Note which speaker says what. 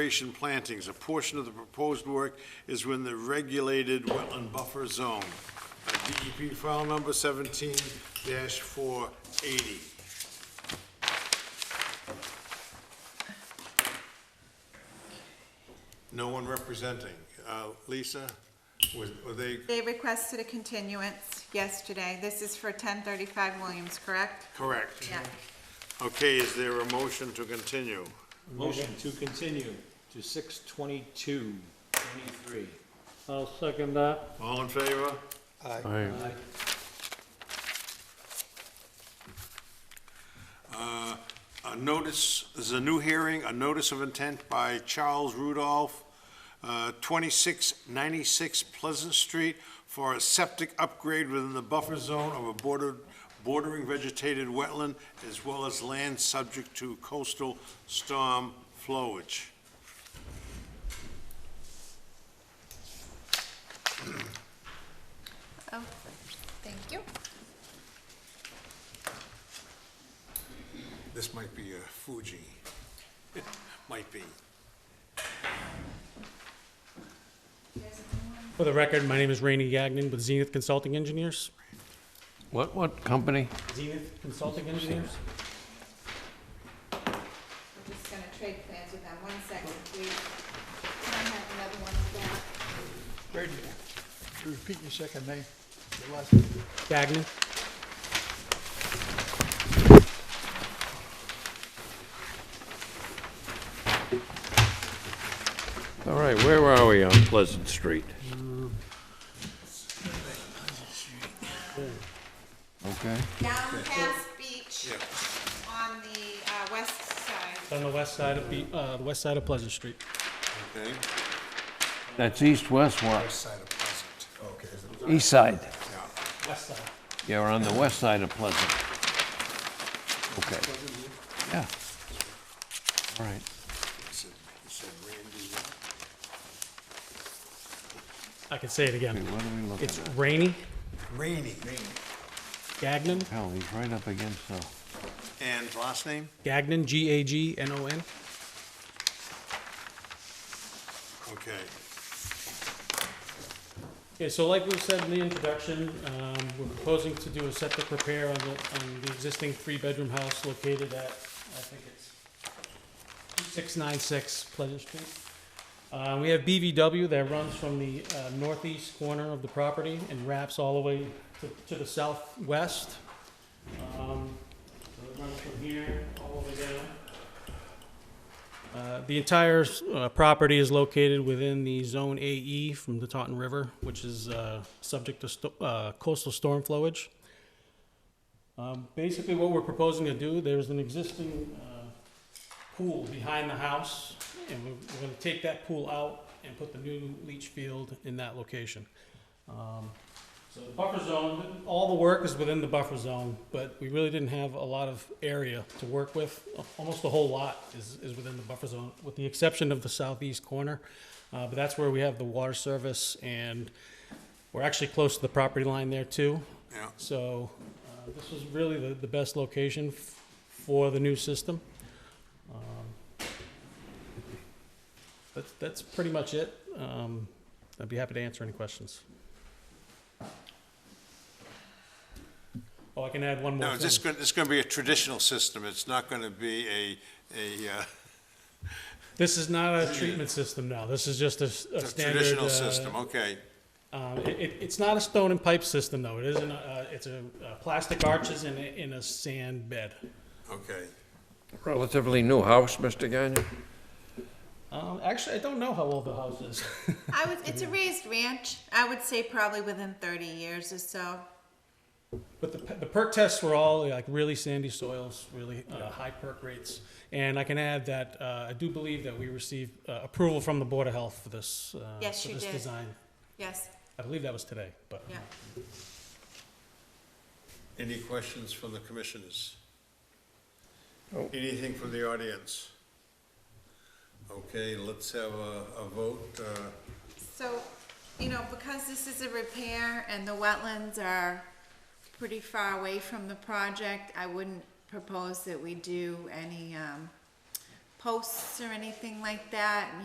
Speaker 1: Conservation plantings, a portion of the proposed work is within the regulated wetland buffer zone. Uh, DEP file number seventeen four eighty. No one representing. Uh, Lisa, was, were they,
Speaker 2: They requested a continuance yesterday. This is for ten thirty-five Williams, correct?
Speaker 1: correct?
Speaker 2: Yeah.
Speaker 1: Okay, is there a motion to continue?
Speaker 3: Motion to continue to six twenty-two, twenty-three.
Speaker 4: I'll second that.
Speaker 1: All in favor? Uh, a notice, there's a new hearing, a notice of intent by Charles Rudolph, uh, 2696 Pleasant Street, for a septic upgrade within the buffer zone of a bordered, bordering vegetated wetland, as well as land subject to coastal storm flowage.
Speaker 5: Oh, thank you.
Speaker 1: This might be a Fuji. Might be.
Speaker 6: For the record, my name is Rainey Gagnon with Zenith Consulting Engineers.
Speaker 7: What, what company?
Speaker 6: Zenith Consulting Engineers?
Speaker 2: I'm just gonna trade plans with them. One second, please. Can I have another one of that?
Speaker 8: Brady, could you repeat your second name? Your last name?
Speaker 6: Gagnon?
Speaker 7: All right, where are we on Pleasant Street? Okay.
Speaker 2: Down past beach on the, uh, west side.
Speaker 6: On the west side of the, uh, the west side of Pleasant Street.
Speaker 1: Okay.
Speaker 7: That's east-west one,
Speaker 8: Side of Pleasant. Okay. is it-
Speaker 7: east side.
Speaker 6: West side.
Speaker 7: Yeah, we're on the west side of Pleasant. Okay. Yeah. All right.
Speaker 6: I can say it
Speaker 7: Okay,
Speaker 6: again.
Speaker 7: what are we looking
Speaker 6: It's
Speaker 7: at?
Speaker 6: Rainey
Speaker 1: Rainey.
Speaker 6: Gagnon,
Speaker 7: Hell, he's right up against the,
Speaker 1: And last name?
Speaker 6: Gagnon, G-A-G-N-O-N.
Speaker 1: Okay.
Speaker 6: Okay, so like we said in the introduction, um, we're proposing to do a septic repair on the, on the existing three-bedroom house located at, I think it's six nine six Pleasant Street. Uh, we have BVW that runs from the uh, northeast corner of the property and wraps all the way to, to the southwest. Um, so it runs from here all the way down. Uh, The entire uh, property is located within the Zone AE from the Taunton River, which is uh, subject to sto- uh, coastal storm flowage. Um, Basically, what we're proposing to do, there's an existing uh, pool behind the house, and we're we're gonna take that pool out and put the new leach field in that location. Um, So the buffer zone, all the work is within the buffer zone, but we really didn't have a lot of area to work with. Almost the whole lot is, is within the buffer zone, with the exception of the southeast corner. Uh, But that's where we have the water service, and we're actually close to the property line there too.
Speaker 1: Yeah.
Speaker 6: So uh, this was really the, the best location f- for the new system. Um, That's, that's pretty much it. Um, I'd be happy to answer any questions. Oh, I can add one more
Speaker 1: No,
Speaker 6: thing.
Speaker 1: it's just gonna, it's gonna be a traditional system. It's not gonna be a, a, uh,
Speaker 6: This is not a treatment system now. This is just a, s- a
Speaker 1: a
Speaker 6: standard.
Speaker 1: traditional
Speaker 6: uh,
Speaker 1: system, okay.
Speaker 6: Um, it, it, it's not a stone and pipe system though. It isn't, uh, it's a, uh plastic arches in a, in a sand bed.
Speaker 1: Okay.
Speaker 7: relatively new house, Mr. Gagnon?
Speaker 6: Um, actually, I don't know how old the house is.
Speaker 2: I would, it's a raised ranch. I would say probably within thirty years or so.
Speaker 6: But the, pe- the perk tests were all like really sandy soils, really uh, high perk rates. And I can add that uh, I do believe that we received uh, approval from the Board of Health for this, uh,
Speaker 2: Yes,
Speaker 6: for
Speaker 2: you
Speaker 6: this
Speaker 2: did.
Speaker 6: design.
Speaker 2: Yes,
Speaker 6: I believe that was today, but
Speaker 2: yeah.
Speaker 1: Any questions from the commissioners? Anything from the audience? Okay, let's have a, a vote. uh,
Speaker 2: So, you know, because this is a repair and the wetlands are pretty far away from the project, I wouldn't propose that we do any, um, posts or anything like that,